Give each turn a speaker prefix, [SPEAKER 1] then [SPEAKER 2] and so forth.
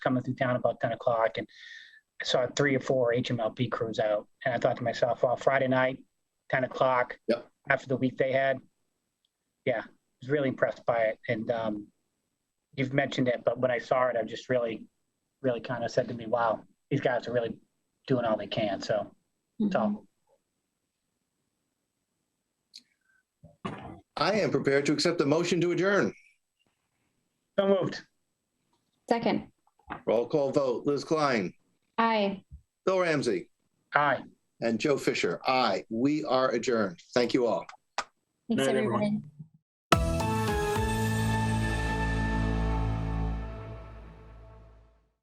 [SPEAKER 1] coming through town about ten o'clock and I saw three or four HMLP crews out and I thought to myself, well, Friday night, ten o'clock.
[SPEAKER 2] Yep.
[SPEAKER 1] After the week they had. Yeah, I was really impressed by it and um, you've mentioned it, but when I saw it, I just really, really kind of said to me, wow, these guys are really doing all they can. So,
[SPEAKER 3] Mhm.
[SPEAKER 1] so
[SPEAKER 2] I am prepared to accept the motion to adjourn.
[SPEAKER 1] so moved.
[SPEAKER 3] Second,
[SPEAKER 2] Roll call vote. Liz Klein,
[SPEAKER 3] aye.
[SPEAKER 2] Bill Ramsey,
[SPEAKER 1] Aye.
[SPEAKER 2] and Joe Fisher. Aye, we are adjourned. Thank you all.
[SPEAKER 3] Thanks,
[SPEAKER 4] Night, everyone.
[SPEAKER 3] everyone.